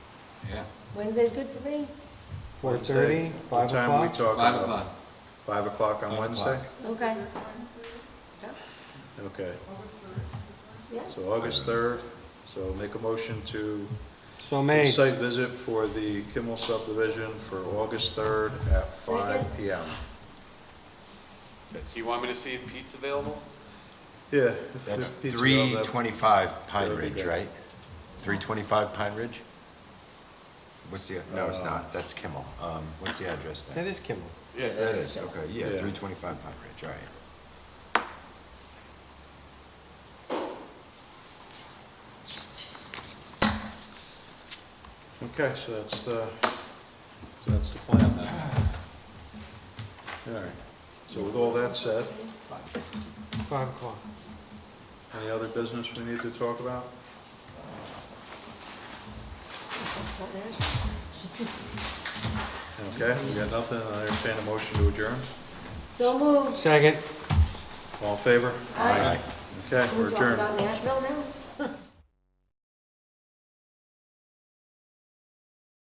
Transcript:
yeah, Wednesday's good for me. Four thirty, Wednesday. five What time we o'clock? talking five about? o'clock. Five o'clock on Five Wednesday? o'clock. Okay, This Wednesday, Okay, August third, this Wednesday? yeah. so August third, so make a motion to So made. site visit for the Kimmel subdivision for August third at five Second. PM. Do you want me to see if Pete's available? Yeah. if That's pizza, three that'd- twenty-five Pine that'd be Ridge, good. right? Three twenty-five Pine Ridge? What's the, no, it's not, that's Kimmel. Um, what's the address That there? is Kimball. That is, okay, yeah, Yeah. three twenty-five Pine Ridge, all right. Okay, so that's the, so that's the plan then. All right, so with all that said, Five o'clock. any other business we need to talk about? Okay, we got nothing, I'll entertain a motion to adjourn. So moved. Second. All in favor? All right. Okay, Can we're we talk adjourned. about Nashville now?